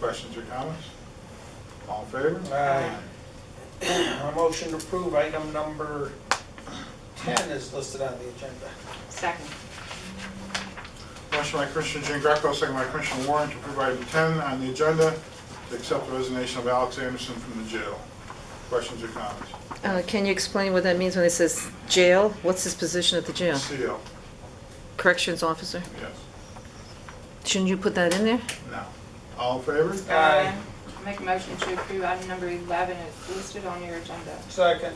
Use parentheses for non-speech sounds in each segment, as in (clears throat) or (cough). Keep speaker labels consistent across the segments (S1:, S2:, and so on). S1: Questions or comments? All in favor?
S2: Aye. (clears throat) A motion to approve item number 10 is listed on the agenda.
S3: Second.
S1: Motion by Commissioner Jean Greco, second by Commissioner Warren to approve item 10 on the agenda, to accept the resignation of Alex Anderson from the jail. Questions or comments?
S4: Uh, Can you explain what that means when it says jail? What's his position at the jail?
S1: CO,
S4: Corrections officer?
S1: yes.
S4: Shouldn't you put that in there?
S1: No. All in favor?
S2: Aye.
S3: Make a motion to approve item number 11 is listed on your agenda.
S2: Second.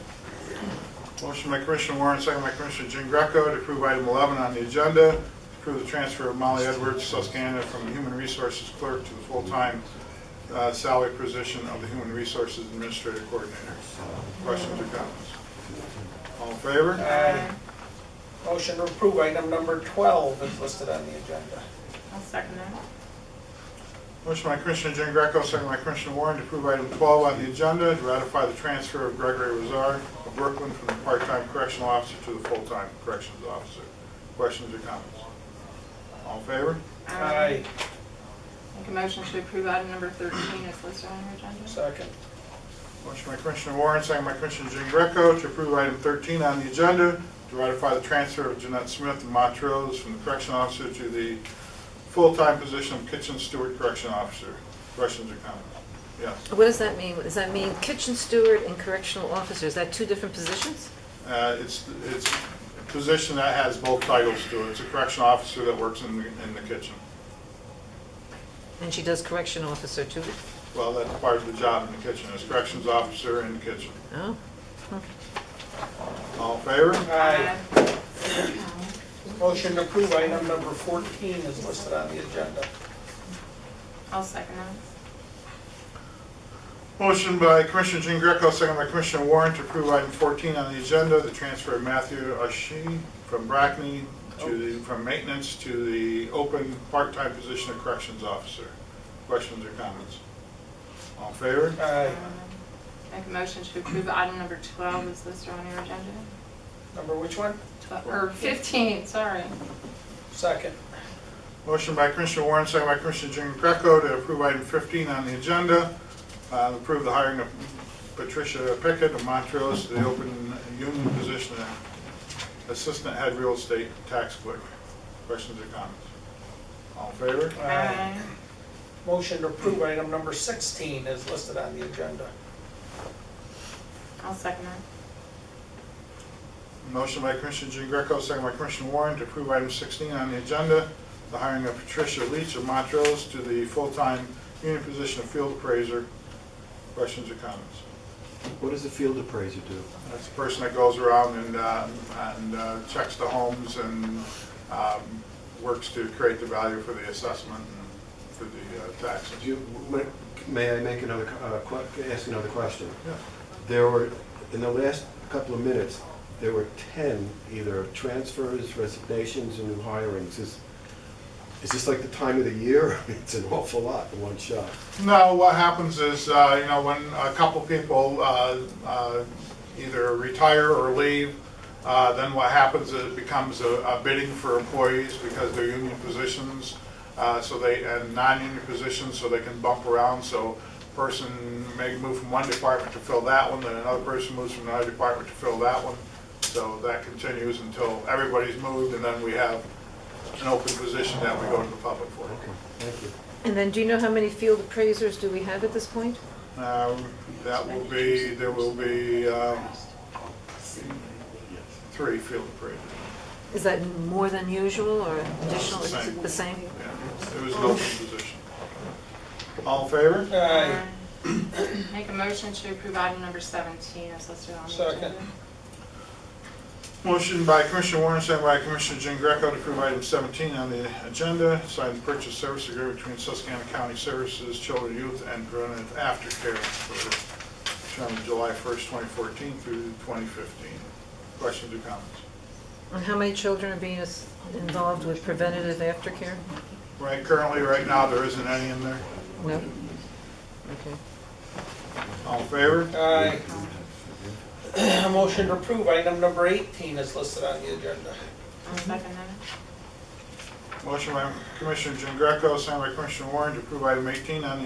S1: Motion by Commissioner Warren, second by Commissioner Jean Greco to approve item 11 on the agenda, to approve the transfer of Molly Edwards, Susquehanna, from the Human Resources Clerk to the full-time uh, salary position of the Human Resources Administrative Coordinator. Questions or comments? All in favor?
S2: Aye. Motion to approve item number 12 is listed on the agenda.
S3: I'll second that.
S1: Motion by Commissioner Jean Greco, second by Commissioner Warren to approve item 12 on the agenda, to ratify the transfer of Gregory Razar of Brooklyn from the part-time correctional officer to the full-time corrections officer. Questions or comments? All in favor?
S2: Aye.
S3: Make a motion to approve item number 13 is listed on your agenda.
S2: Second.
S1: Motion by Commissioner Warren, second by Commissioner Jean Greco to approve item 13 on the agenda, to ratify the transfer of Jeanette Smith of Montrose from the correction officer to the full-time position of kitchen steward correction officer. Questions or comments? Yes.
S4: What does that mean? Does that mean kitchen steward and correctional officer? Is that two different positions?
S1: Uh, It's, it's a position that has both titles to it. It's a correction officer that works in the, in the kitchen.
S4: And she does correction officer too?
S1: Well, that's part of the job in the kitchen, is corrections officer in the kitchen.
S4: Oh,
S1: All in favor?
S2: Aye. Motion to approve item number 14 is listed on the agenda.
S3: I'll second that.
S1: Motion by Commissioner Jean Greco, second by Commissioner Warren to approve item 14 on the agenda, the transfer of Matthew Ashi from Brackney to the, from maintenance to the open part-time position of corrections officer. Questions or comments? All in favor?
S2: Aye.
S3: Make a motion to approve item number 12 is listed on your agenda.
S2: Number which one?
S3: Tw- Or 15, sorry.
S2: Second.
S1: Motion by Commissioner Warren, second by Commissioner Jean Greco to approve item 15 on the agenda, uh, approve the hiring of Patricia Pickett of Montrose to the open union position of Assistant Head Real Estate Tax Clerk. Questions or comments? All in favor?
S2: Aye. Motion to approve item number 16 is listed on the agenda.
S3: I'll second that.
S1: Motion by Commissioner Jean Greco, second by Commissioner Warren to approve item 16 on the agenda, the hiring of Patricia Leach of Montrose to the full-time union position of Field Appraiser. Questions or comments?
S5: What does a field appraiser do?
S1: That's the person that goes around and, uh, and uh, checks the homes and um, works to create the value for the assessment and for the uh, taxes.
S5: Do you- may- May I make another, co- uh, que- ask another question?
S1: Yeah.
S5: There were, in the last couple of minutes, there were 10 either transfers, resignations, and new hirings. Is is this like the time of the year? (laughs) It's an awful lot in one shot.
S1: No, what happens is, uh, you know, when a couple people uh, uh, either retire or leave, uh, then what happens is it becomes a a bidding for employees because they're union positions, uh, so they, and non-union positions, so they can bump around. So person may move from one department to fill that one, then another person moves from another department to fill that one. So that continues until everybody's moved, and then we have an open position that we go to the public for.
S5: Okay, thank you.
S4: and then do you know how many field appraisers do we have at this point?
S1: Um, That will be, there will be um, three field appraisers.
S4: Is that more than usual or additional?
S1: It's the
S4: Is it The same?
S1: Yeah, It was an open position. All in favor?
S2: Aye.
S3: Make a motion to approve item number 17 is listed on your
S2: Second.
S3: agenda.
S1: Motion by Commissioner Warren, second by Commissioner Jean Greco to approve item 17 on the agenda, sign the purchase service agreement between Susquehanna County Services, Children, Youth, and Preventive Aftercare for term of July 1st, 2014 through 2015. Questions or comments?
S4: And how many children are being as- involved with preventative aftercare?
S1: Right, currently, right now, there isn't any in there.
S4: No? Okay.
S1: All in favor?
S2: Aye. (clears throat) Motion to approve item number 18 is listed on the agenda.
S3: I'll second that.
S1: Motion by Commissioner Jean Greco, signed by Commissioner Warren to approve item 18 on the